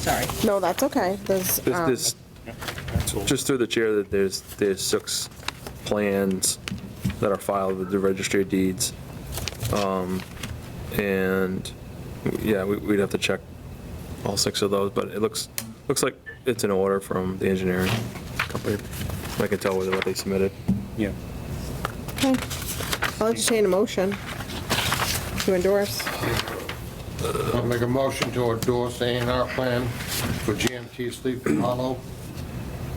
sorry. No, that's okay. There's, There's- um, there's- Just through the chair, that there's, there's six plans that are filed with the registry of deeds. Um, And, yeah, we- we'd have to check all six of those, but it looks, looks like it's an order from the engineering company. I can tell with what they submitted. Yeah. okay. I'll entertain a motion to endorse. I'll make a motion to endorse A and R plan for GMT Sleepy Hollow,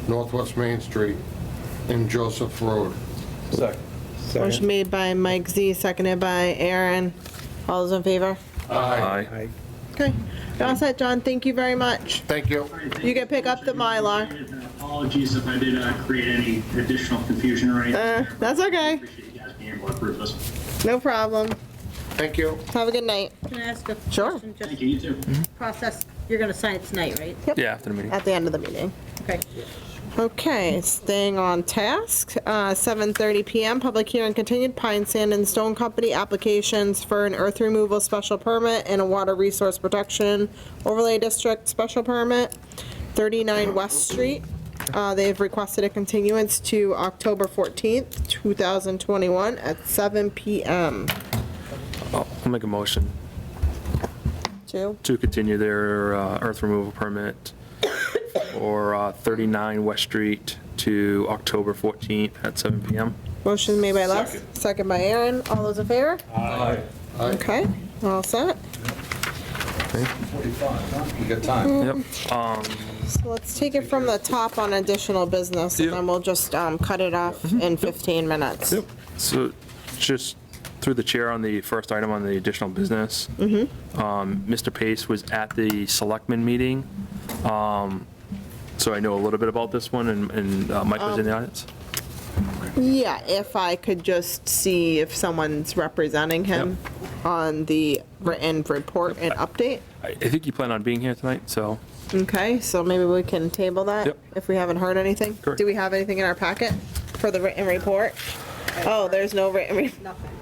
Northwest Main Street, and Joseph Road. Motion made by Mike Z, seconded by Aaron. All those in favor? Aye. Okay. You're All set, John. Thank you very much. Thank you. You can pick up the Mylar. Apologies if I did uh, create any additional confusion Uh, or anything. that's okay. Appreciate you guys being able to approve this. No problem. Thank you. Have a good night. Can I ask a question? Sure. Thank you, you too. Just process, you're gonna sign it tonight, right? Yeah, after the meeting. At the end of the meeting. Okay. Okay, staying on task, uh, 7:30 PM, public hearing continued, Pine Sand and Stone Company applications for an earth removal special permit and a water resource protection overlay district special permit, 39 West Street. Uh, They've requested a continuance to October 14th, 2021 at 7 PM. I'll I'll make a motion Two? to continue their uh, earth removal permit for uh, 39 West Street to October 14th at 7 PM. Motion made by Les, second by Aaron. All those in favor? Aye. Okay, all set. We got time. Yep. Um, Mm-hmm. So let's take it from the top on additional business, and then we'll just um, cut it off Mm-hmm. in 15 minutes. So just through the chair on the first item on the additional business. Um, Mr. Pace was at the selectmen meeting. um, So I know a little bit about this one and- and uh, Mike was in the audience. Yeah, if I could just see if someone's representing him on the written report and update. I I think you plan on being here tonight, so. Okay, so maybe we can table that Yep. if we haven't heard anything. Correct. Do we have anything in our packet for the written report? Oh, there's no written, re-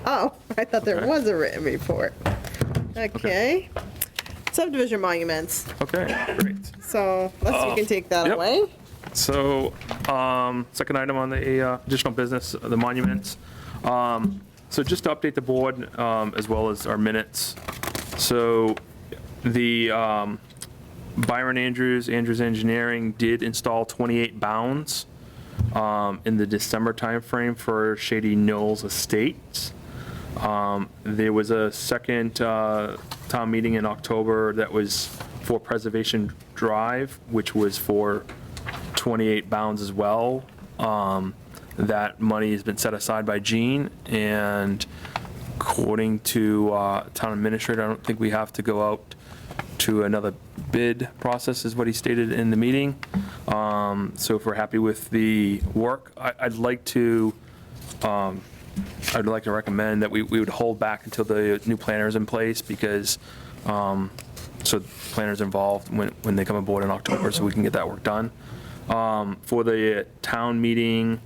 oh, I thought there Okay. was a written report. Okay. Subdivision monuments. Okay, great. So let's, you can take that Oh, Yep. away. So, um, second item on the uh, additional business, the monuments. Um, So just to update the board, um, as well as our minutes. So the um, Byron Andrews, Andrews Engineering did install 28 bounds um, in the December timeframe for Shady Knolls Estates. Um, There was a second uh, town meeting in October that was for Preservation Drive, which was for 28 bounds as well. Um, That money has been set aside by Gene, and according to uh, town administrator, I don't think we have to go out to another bid process, is what he stated in the meeting. Um, So if we're happy with the work, I- I'd like to, um, I'd like to recommend that we we would hold back until the new planner is in place, because, um, so planners involved when when they come aboard in October, so we can get that work done um, for the town meeting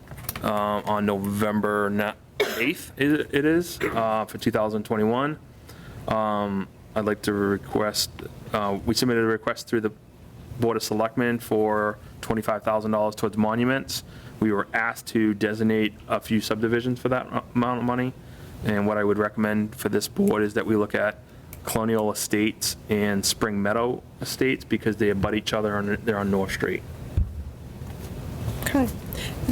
uh, on November na- 8th, i- it is, uh, for 2021. Um, I'd like to request, uh, we submitted a request through the Board of Selectmen for $25,000 towards monuments. We were asked to designate a few subdivisions for that amount of money. And what I would recommend for this board is that we look at Colonial Estates and Spring Meadow Estates because they abut each other and they're on North Street. Okay.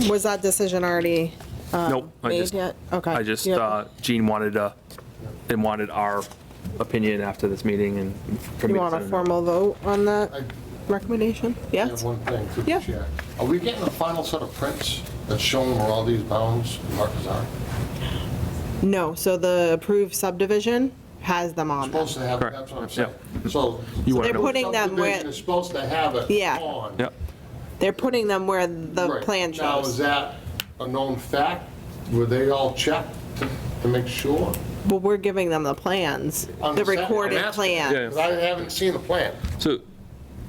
Was that decision already Nope, I made just, yet? Okay. I just, You have- uh, Gene wanted to, and wanted our opinion after this meeting and. for me You to want a send it. formal vote on that I recommendation? I Yes? have one thing to Yeah. check. Are we getting the final set of prints that's showing where all these bounds and markers are? No, so the approved subdivision has them on them. Supposed to have, Correct. that's what I'm saying. So. You want They're to, putting them where- Subdivision is supposed to have it Yeah. on. yeah, They're putting them where the Right. plan Now, is shows. that a known fact? Were they all checked to- to make sure? Well, we're giving them the plans, On the the second- recorded I'm asking. plan. Yeah. Because I haven't seen the plan. so,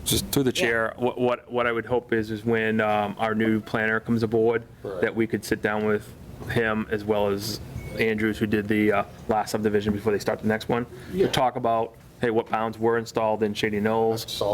just through the chair, what, what, what I would hope is, is when, um, our new planner comes aboard, Right. that we could sit down with him as well as Andrews, who did the, uh, last subdivision before they start the next one, Yeah. to talk about, hey, what bounds were installed in Shady Knolls, That's all.